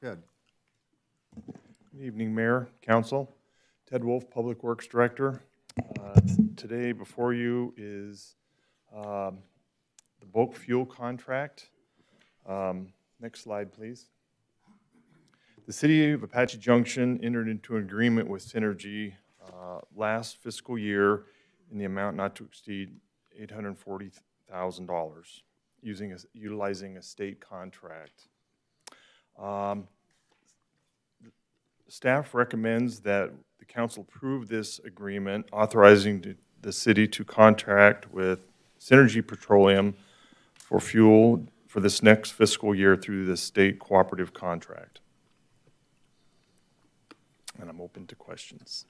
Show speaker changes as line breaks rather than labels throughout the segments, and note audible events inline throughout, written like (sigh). Ted?
Good evening, Mayor, Council. Ted Wolf, Public Works Director. Uh, Today before you is um, the bulk fuel contract. Um, Next slide, please. The City of Apache Junction entered into an agreement with Synergy uh, last fiscal year in the amount not to exceed $840,000, using, a- utilizing a state contract. Um, Staff recommends that the council approve this agreement authorizing the- the city to contract with Synergy Petroleum for fuel for this next fiscal year through the state cooperative contract. And I'm open to questions.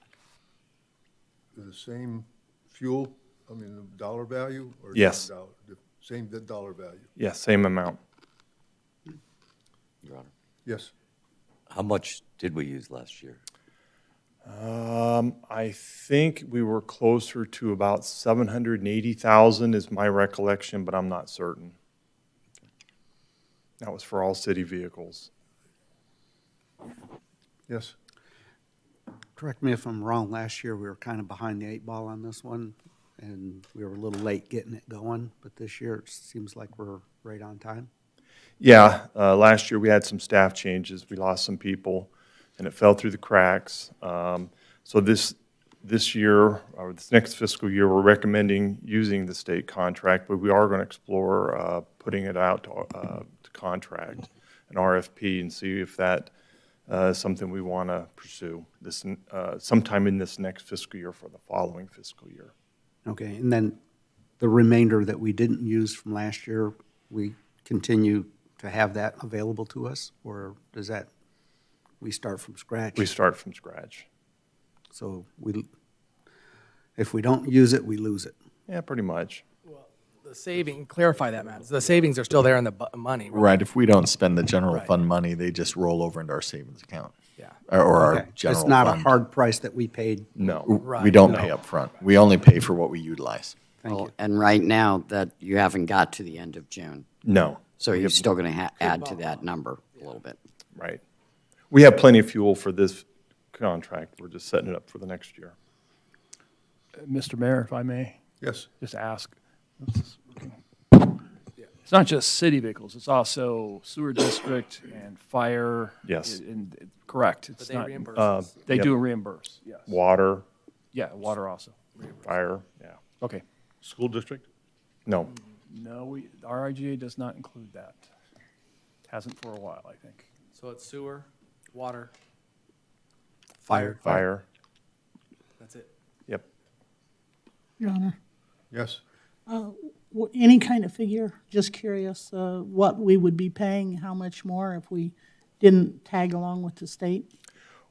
They're the same fuel, I mean, the dollar value? or
Yes.
dollar- the Same the dollar value?
Yes, same amount.
Your Honor.
Yes.
How much did we use last year?
Um, I think we were closer to about 780,000 is my recollection, but I'm not certain. That was for all city vehicles.
Yes.
Correct me if I'm wrong, last year we were kind of behind the eight ball on this one, and we were a little late getting it going, but this year it seems like we're right on time.
Yeah, uh, last year we had some staff changes. We lost some people, and it fell through the cracks. Um, So this, this year, or this next fiscal year, we're recommending using the state contract, but we are going to explore uh, putting it out to uh, to contract, an RFP, and see if that uh, is something we want to pursue this, uh, sometime in this next fiscal year for the following fiscal year.
Okay, and then the remainder that we didn't use from last year, we continue to have that available to us, or does that, we start from scratch?
We start from scratch.
So we, if we don't use it, we lose it.
Yeah, pretty much.
The saving, clarify that, Matt. The savings are still there in the bu- money, right?
Right, if we don't spend the general
Right.
fund money, they just roll over into our savings account.
Yeah.
Or, or our
Okay,
general
It's not a
fund.
hard price that we paid.
No.
We
Right.
don't pay upfront. We only pay for what we utilize.
Thank
Well,
you.
And right now, that, you haven't got to the end of June,
No.
so you're still going to add to that number a little bit.
Right. We have plenty of fuel for this contract. We're just setting it up for the next year.
Mr. Mayor, if I may,
Yes.
just ask. It's not just city vehicles, it's also sewer district and fire.
Yes.
And, and- correct,
But
it's
they
not,
reimburse
Uh,
us.
they
Yep.
do reimburse, yes.
Water,
Yeah, water also.
fire, yeah.
Okay,
School district?
No,
no, we, our IGA does not include that. Hasn't for a while, I think.
So it's sewer, water,
Fire.
fire,
that's it.
yep.
Your Honor.
Yes.
W- Any kind of figure, just curious, uh, what we would be paying, how much more if we didn't tag along with the state?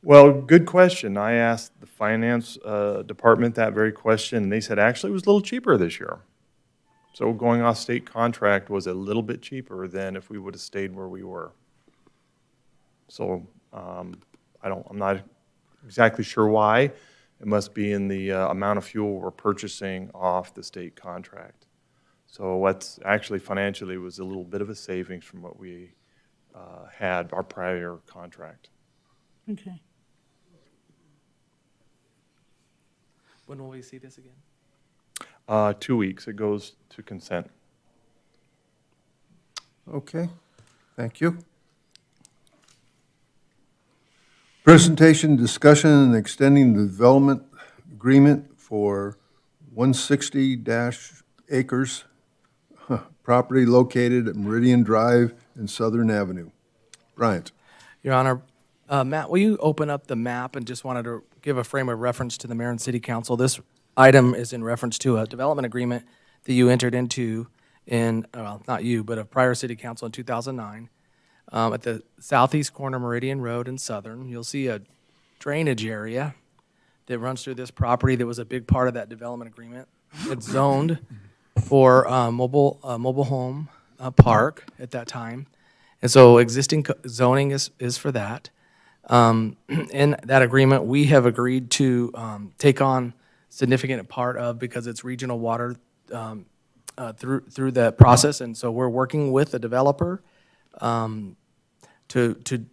Well, good question. I asked the finance uh, department that very question, and they said actually it was a little cheaper this year. So going off state contract was a little bit cheaper than if we would have stayed where we were. So um, I don't, I'm not exactly sure why. It must be in the uh, amount of fuel we're purchasing off the state contract. So what's actually financially was a little bit of a savings from what we uh, had our prior contract.
Okay.
When will we see this again?
Uh, two weeks. It goes to consent.
Okay, thank you. Presentation, discussion, and extending the development agreement for 160 dash acres huh, property located at Meridian Drive and Southern Avenue. Bryant?
Your Honor, uh, Matt, will you open up the map and just wanted to give a frame of reference to the mayor and city council? This item is in reference to a development agreement that you entered into in, well, not you, but a prior city council in 2009. um, At the southeast corner of Meridian Road and Southern, you'll see a drainage area that runs through this property that was a big part of that development agreement. It's zoned for uh, mobile, uh, mobile home uh, park at that time. And so existing co- zoning is, is for that. Um, (clears throat) In that agreement, we have agreed to um, take on significant part of, because it's regional water um, uh, through, through that process. And so we're working with the developer um, to, to